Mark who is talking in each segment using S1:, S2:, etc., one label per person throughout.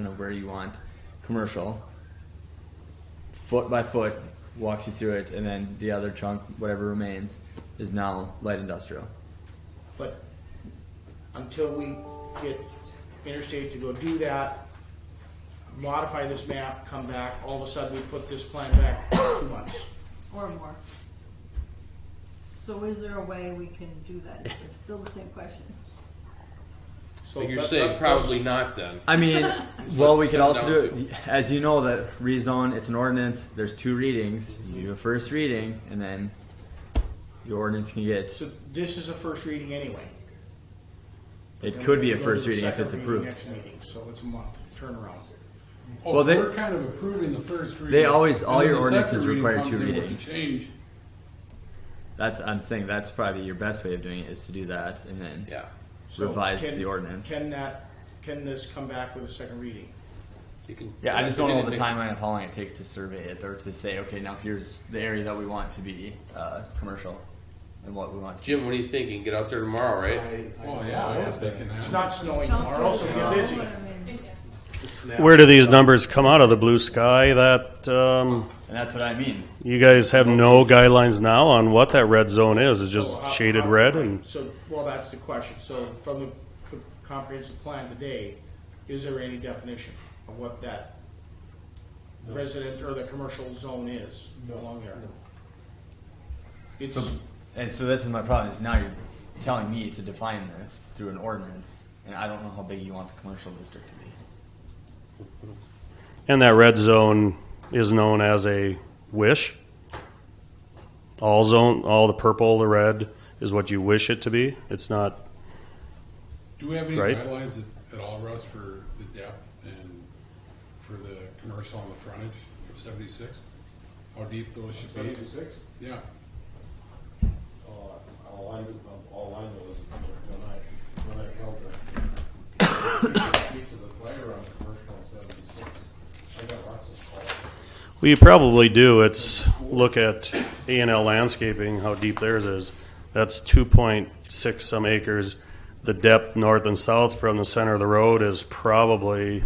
S1: you know where you want commercial foot by foot walks you through it and then the other chunk whatever remains is now light industrial
S2: But until we get Interstate to go do that, modify this map, come back, all of a sudden we put this plan back two months.
S3: Or more. So is there a way we can do that? It's still the same question.
S2: So
S4: But you're
S2: that-
S4: saying
S2: that-
S4: probably
S2: that's-
S4: not then.
S1: i mean well we could also do it as you know that rezone it's an ordinance there's two readings you do a first reading and then your ordinance can get
S2: So this is a first reading anyway.
S1: it could be a
S2: Then we
S1: first
S2: go to
S1: reading
S2: the
S1: if it's
S2: second
S1: approved
S2: Next meeting, so it's a month turnaround.
S5: Oh,
S1: Well,
S5: so
S1: they-
S5: we're kind of approving the first reading.
S1: They always-
S5: and
S1: all
S5: then
S1: your
S5: the
S1: ordinances
S5: second reading
S1: require
S5: comes
S1: two
S5: in with the
S1: readings.
S5: Change,
S1: that's i'm saying that's probably your best way of doing it is to do that and then
S4: Yeah.
S2: So
S1: revise
S2: can-
S1: the ordinance
S2: Can that, can this come back with a second reading?
S4: You can-
S1: Yeah, I just don't
S4: you
S1: know
S4: can
S1: the
S4: think-
S1: timeline of how long it takes to survey it or to say, okay, now here's the area that we want to be uh, commercial and what we want. To
S4: Jim, what are you thinking? Get out there tomorrow, right?
S5: oh yeah, I was thinking that.
S2: It's not snowing tomorrow, so get busy.
S3: I mean,
S6: Where do these numbers come out of the blue sky? That um,
S1: and that's what I mean.
S6: you guys have no guidelines now on what that red zone is. It's just
S2: So how-
S6: shaded
S2: how-
S6: red, and
S2: So, well, that's the question. So from the co- comprehensive plan today, is there any definition of what that resident or the commercial zone is along there? It's,
S1: So, and so this is my problem is now you're telling me to define this through an ordinance, and I don't know how big you want the commercial district to be.
S6: and that red zone is known as a wish. All zone, all the purple, the red is what you wish it to be. It's not.
S5: Do we have any
S6: Right.
S5: guidelines at, at all, Russ, for the depth and for the commercial on the frontage of seventy-six? How deep those should be?
S7: Seventy-six,
S5: Yeah,
S7: uh, all I, knew- all I know is when I, when I held the, speak to the fire on commercial on seventy-six, I got lots of calls.
S6: Well, you probably do. It's look at A and L landscaping, how deep theirs is. That's two point six some acres. The depth north and south from the center of the road is probably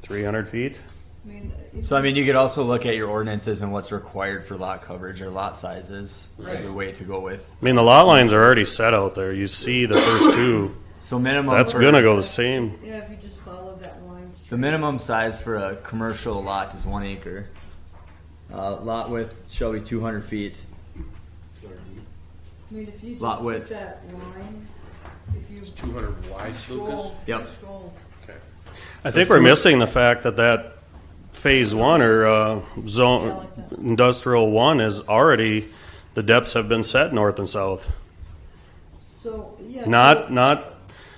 S6: three hundred feet.
S3: I mean, if-
S1: So I mean, you could also look at your ordinances and what's required for lot coverage or lot sizes as a
S5: Right.
S1: way to go with.
S6: I mean, the lot lines are already set out there. You see the first two.
S1: So minimum.
S6: That's
S1: for-
S6: gonna go the same.
S3: Yeah, if you just follow that line straight.
S1: The minimum size for a commercial lot is one acre. Uh, lot width shall be 200 feet.
S3: I mean, if you
S1: lot
S3: just took
S1: width.
S3: that line, if you
S4: Two hundred wide, Lucas.
S3: scroll,
S1: Yep.
S3: scroll.
S4: Okay.
S6: I think we're missing the fact that that phase one or uh, zone industrial one is already the depths have been set north and south.
S3: So, yeah.
S6: Not not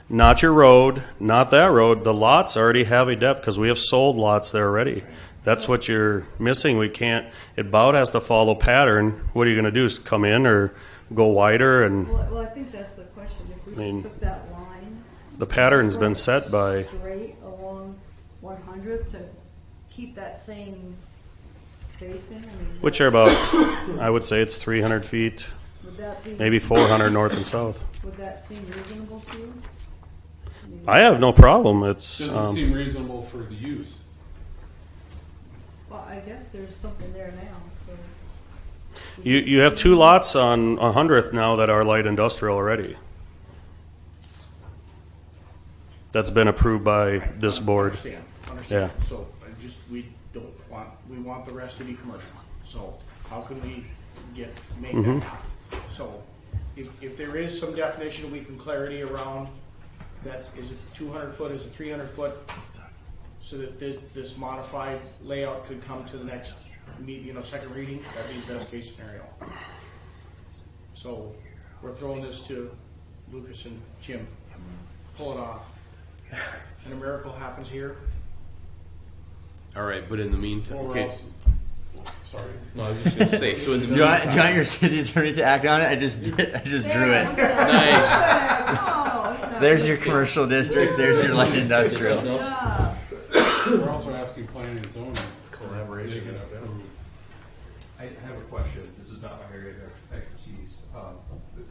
S6: not your road, not that road. The lots already have a depth because we have sold lots there already. That's what you're missing. We can't. It about has to follow pattern. What are you going to do? Is come in or go wider?
S3: so-
S6: And
S3: Well, well, I think that's the question. If we
S6: mean-
S3: just took that line.
S6: the pattern's been set by.
S3: Straight along one hundred to keep that same spacing, I mean.
S6: Which are about, I would say it's 300 feet,
S3: Would that be?
S6: maybe 400 north and south.
S3: Would that seem reasonable to you?
S6: I have no problem. It's
S5: doesn't
S6: um,
S5: seem reasonable for the use.
S3: Well, I guess there's something there now, so.
S6: you you have two lots on 100th now that are light industrial already. That's been approved by this board.
S2: Understand, understand.
S6: Yeah.
S2: So I just, we don't want, we want the rest to be commercial. So how can we get, make
S6: Mm-hmm.
S2: that happen? So if, if there is some definition, we can clarity around that, is it two hundred foot, is it three hundred foot? So that this, this modified layout could come to the next meet, you know, second reading, that'd be the best case scenario. So we're throwing this to Lucas and Jim. Pull it off. And a miracle happens here.
S4: All right, but in the meantime,
S5: Or
S4: okay.
S5: else, sorry.
S4: No, I was just gonna say. So in the
S1: Do you,
S4: meantime,
S1: want, do you want your city attorney to act on it? I just did. I just drew it.
S4: nice.
S3: it.
S1: There's your commercial district. There's your light industrial.
S4: No,
S3: Yeah,
S5: We're also asking planning and zoning. Collaboration.
S8: I have a question. This is not my area of expertise. Um, but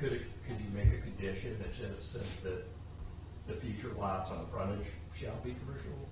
S8: Could, it- could you make a condition that says that the future lots on the frontage shall be commercial